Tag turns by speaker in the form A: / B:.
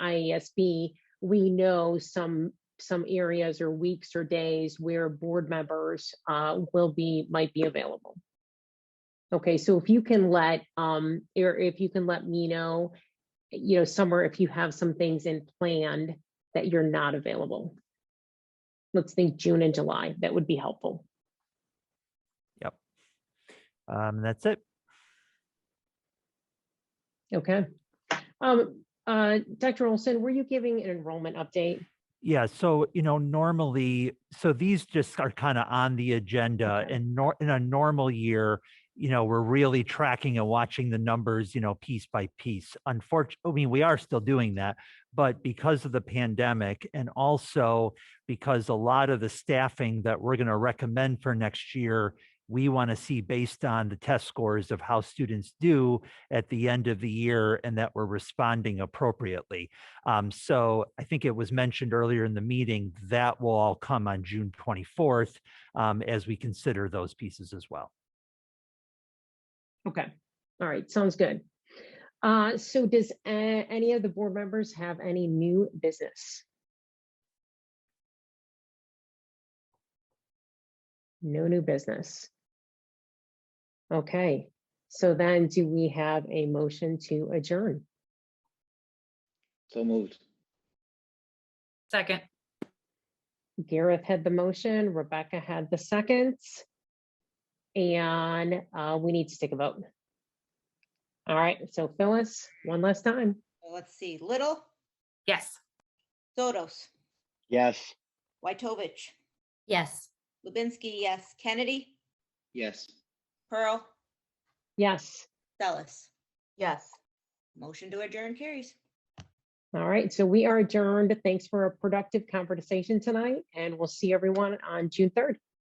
A: IASB, E we know some some areas or weeks or days where board members uh, will be might be available. Okay, so if you can let um, or if you can let me know, you know, somewhere if you have some things in planned that you're not available. Let's think June and July. That would be helpful.
B: Um, that's it.
A: Okay. Um, uh, Dr. Olson, were you giving an enrollment update?
B: Yeah, so you know, normally, so these just are kind of on the agenda
A: Okay.
B: and nor, in a normal year, you know, we're really tracking and watching the numbers, you know, piece by piece. Unfortunately, I mean, we are still doing that, but because of the pandemic and also because a lot of the staffing that we're going to recommend for next year, we want to see based on the test scores of how students do at the end of the year and that we're responding appropriately. Um, so I think it was mentioned earlier in the meeting that will all come on June 24th um, as we consider those pieces as well.
A: Okay. All right, sounds good. Uh, so does uh, any of the board members have any new business? No new business. Okay, so then do we have a motion to adjourn?
C: So moved.
D: Second,
A: Gareth had the motion, Rebecca had the seconds. And uh, we need to take a vote. All right, so Phyllis, one last time.
E: Well, Let's see, Little,
D: yes.
E: Sotos,
C: Yes.
E: Waitovich,
D: Yes.
E: Lubinsky, yes, Kennedy,
C: Yes.
E: Pearl,
A: Yes.
E: Sellis.
F: Yes.
E: Motion to adjourn carries.
A: All right, so we are adjourned. Thanks for a productive conversation tonight, and we'll see everyone on June 3rd.